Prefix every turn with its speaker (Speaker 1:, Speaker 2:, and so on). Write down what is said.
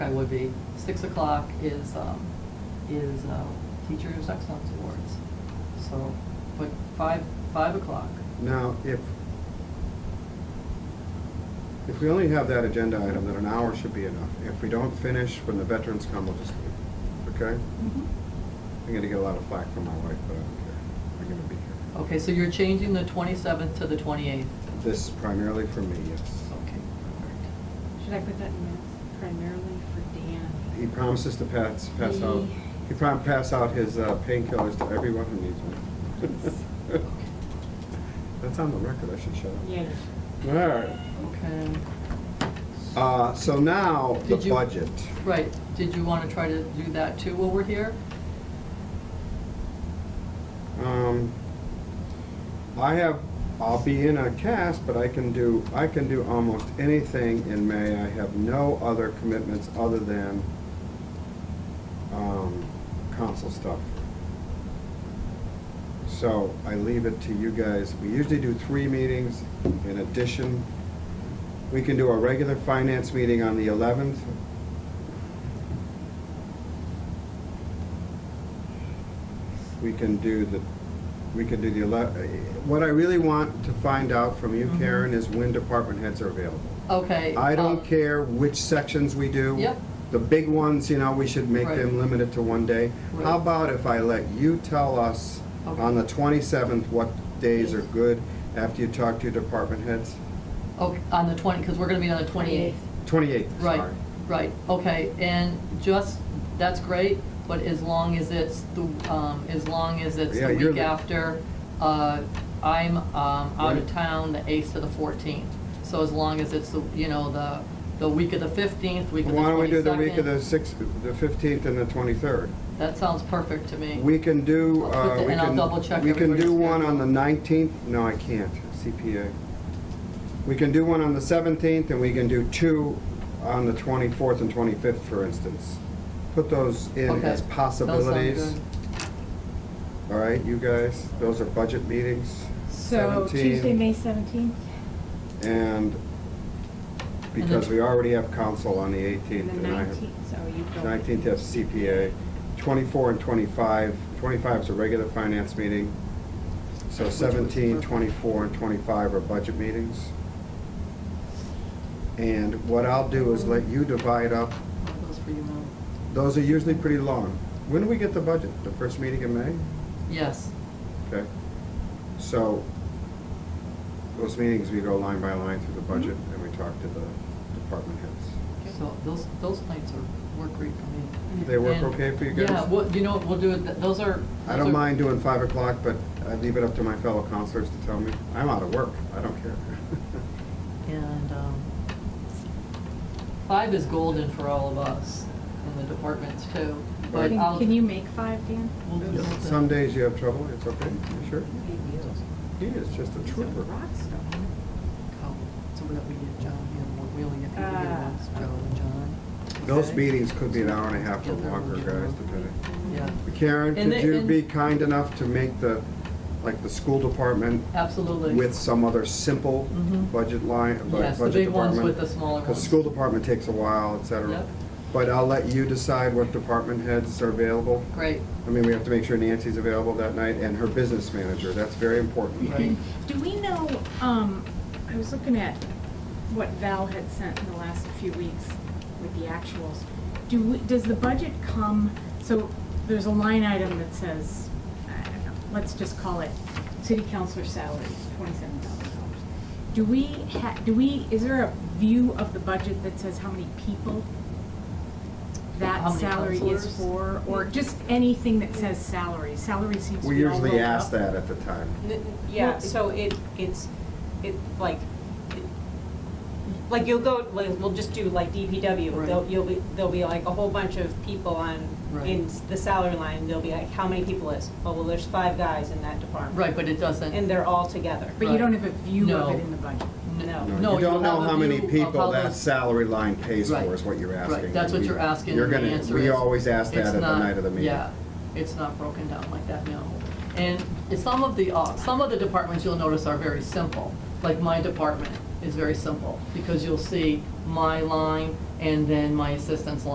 Speaker 1: would be, six o'clock is, um, is uh, Teachers Excellence Awards. So, but five, five o'clock,
Speaker 2: Now, if, if we only have that agenda item, then an hour should be enough. If we don't finish, when the veterans come, we'll just leave, okay?
Speaker 1: Mm-hmm.
Speaker 2: I'm gonna get a lot of flack from my wife, but I don't care. I'm gonna be here.
Speaker 1: okay, so you're changing the twenty-seventh to the twenty-eighth?
Speaker 2: This is primarily for me, yes.
Speaker 1: Okay, all
Speaker 3: Should I put that in minutes primarily for
Speaker 2: He
Speaker 3: Dan?
Speaker 2: promises to pass, pass out, he prom, pass out his uh, painkillers to everyone who needs one. That's on the record, I should shut up.
Speaker 3: Yeah.
Speaker 2: All right.
Speaker 1: right, okay.
Speaker 2: Uh, so now, the
Speaker 1: Did you-
Speaker 2: budget.
Speaker 1: Right, did you want to try to do that too while we're here?
Speaker 2: Um, I have, I'll be in a cast, but I can do, I can do almost anything in May. I have no other commitments other than, um, council stuff. So I leave it to you guys. We usually do three meetings in addition. We can do a regular finance meeting on the eleventh. We can do the, we can do the ele, what I really want to find out from you,
Speaker 1: Mhm.
Speaker 2: Karen, is when department heads are available.
Speaker 1: Okay.
Speaker 2: I don't
Speaker 1: um,
Speaker 2: care which sections we do.
Speaker 1: Yep.
Speaker 2: The big ones, you know, we should make
Speaker 1: Right.
Speaker 2: them limited to one day. How
Speaker 1: Right.
Speaker 2: about if I let you tell us on the twenty-seventh what days are good after you talk to your department heads?
Speaker 1: Okay, on the twenty, because we're going to be on the twenty-eighth.
Speaker 2: Twenty-eighth,
Speaker 1: Right,
Speaker 2: sorry.
Speaker 1: right, okay, and just, that's great, but as long as it's the, um, as long as it's
Speaker 2: Yeah,
Speaker 1: the
Speaker 2: you're
Speaker 1: week
Speaker 2: the-
Speaker 1: after, uh, I'm, um, out
Speaker 2: Right.
Speaker 1: of town the eighth to the fourteenth. So as long as it's the, you know, the, the week of the fifteenth, week of the twenty-second.
Speaker 2: Why don't we do the week of the sixth, the fifteenth and the twenty-third?
Speaker 1: That sounds perfect to me.
Speaker 2: We can do,
Speaker 1: I'll put
Speaker 2: uh,
Speaker 1: the-
Speaker 2: we
Speaker 1: and I'll
Speaker 2: can,
Speaker 1: double-check
Speaker 2: we can do
Speaker 1: everybody's
Speaker 2: one on
Speaker 1: schedule.
Speaker 2: the nineteenth, no, I can't, CPA. We can do one on the seventeenth, and we can do two on the twenty-fourth and twenty-fifth, for instance. Put those in
Speaker 1: Okay,
Speaker 2: as
Speaker 1: those sound
Speaker 2: possibilities.
Speaker 1: good.
Speaker 2: All right, you guys, those are budget meetings.
Speaker 3: So
Speaker 2: 17,
Speaker 3: Tuesday, May seventeenth,
Speaker 2: And because we already have council on the
Speaker 3: and
Speaker 2: eighteenth.
Speaker 3: the nineteenth, so you go.
Speaker 2: 19th have CPA, 24 and 25, 25 is a regular finance meeting, so 17, 24, and 25 are budget meetings. And what I'll do is let you divide up,
Speaker 1: Those for you, Mel.
Speaker 2: those are usually pretty long. When do we get the budget? The first meeting in May?
Speaker 1: Yes,
Speaker 2: Okay. So those meetings, we go line by line through the budget and we talk to the department heads.
Speaker 1: so those, those nights are, work great for me.
Speaker 2: They work
Speaker 1: And-
Speaker 2: okay for you guys?
Speaker 1: Yeah, well, you know, what, we'll do it, th- those are.
Speaker 2: I
Speaker 1: those
Speaker 2: don't
Speaker 1: are-
Speaker 2: mind doing five o'clock, but I leave it up to my fellow counselors to tell me. I'm out of work, I don't care.
Speaker 1: And um, five is golden for all of us in the departments too. But
Speaker 2: Right.
Speaker 1: I'll-
Speaker 3: Can can you make five, Dan?
Speaker 1: We'll do
Speaker 2: Yes,
Speaker 1: something.
Speaker 2: Some days you have trouble, it's okay, you sure?
Speaker 3: Look
Speaker 1: uh,
Speaker 3: at you.
Speaker 2: He is just a
Speaker 3: He's a
Speaker 2: trooper.
Speaker 3: rock star.
Speaker 1: Oh, So we don't, we get John and we only get the bigger
Speaker 3: Ah.
Speaker 1: ones, Joe and John.
Speaker 2: Those
Speaker 1: Okay?
Speaker 2: meetings could be an hour and a half or longer, guys, depending.
Speaker 1: Yeah,
Speaker 2: Karen,
Speaker 1: And
Speaker 2: could
Speaker 1: the-
Speaker 2: you
Speaker 1: and-
Speaker 2: be kind enough to make the, like, the school department
Speaker 1: absolutely.
Speaker 2: with some other simple
Speaker 1: Mhm.
Speaker 2: budget line, bu- budget
Speaker 1: Yes,
Speaker 2: department?
Speaker 1: the big ones with the smaller
Speaker 2: Because
Speaker 1: ones.
Speaker 2: school department takes a while, et cetera.
Speaker 1: Yep.
Speaker 2: But I'll let you decide what department heads are available.
Speaker 1: Great,
Speaker 2: I mean, we have to make sure Nancy's available that night and her business manager, that's very important.
Speaker 1: right.
Speaker 3: Do we know, um, I was looking at what Val had sent in the last few weeks with the actuals. Do, we- does the budget come, so there's a line item that says, I don't know, let's just call it city councilor salary, twenty-seven thousand dollars. Do we ha, do we, is there a view of the budget that says how many people
Speaker 1: How
Speaker 3: that
Speaker 1: many
Speaker 3: salary is
Speaker 1: counselors?
Speaker 3: for? Or just anything that says salary, salary seems to
Speaker 2: We
Speaker 3: be all
Speaker 2: usually
Speaker 3: rolled
Speaker 2: ask
Speaker 3: up.
Speaker 2: that at the time.
Speaker 4: N- Yeah, so it, it's, it, like, like you'll go, like, we'll just do like DPW,
Speaker 1: Right.
Speaker 4: there'll, you'll be, there'll be like a whole bunch of people on, in
Speaker 1: Right.
Speaker 4: the salary line, they'll be like, how many people is? Oh, well, there's five guys in that department.
Speaker 1: Right, but it doesn't.
Speaker 4: And they're all together.
Speaker 3: But you don't have a view
Speaker 1: No.
Speaker 3: of it in the budget.
Speaker 4: No.
Speaker 1: No,
Speaker 2: You don't
Speaker 1: you'll
Speaker 2: know
Speaker 1: have a
Speaker 2: how many
Speaker 1: view of
Speaker 2: people
Speaker 1: how
Speaker 2: that
Speaker 1: those-
Speaker 2: salary line pays
Speaker 1: Right.
Speaker 2: for is what you're asking.
Speaker 1: Right, that's what
Speaker 2: We-
Speaker 1: you're asking,
Speaker 2: You're
Speaker 1: and the
Speaker 2: gonna-
Speaker 1: answer
Speaker 2: We
Speaker 1: is
Speaker 2: always ask that
Speaker 1: it's
Speaker 2: at the
Speaker 1: not-
Speaker 2: night of the meeting.
Speaker 1: Yeah, it's not broken down like that, no. And some of the, uh, some of the departments you'll notice are very simple, like my department is very simple, because you'll see my line and then my assistant's line.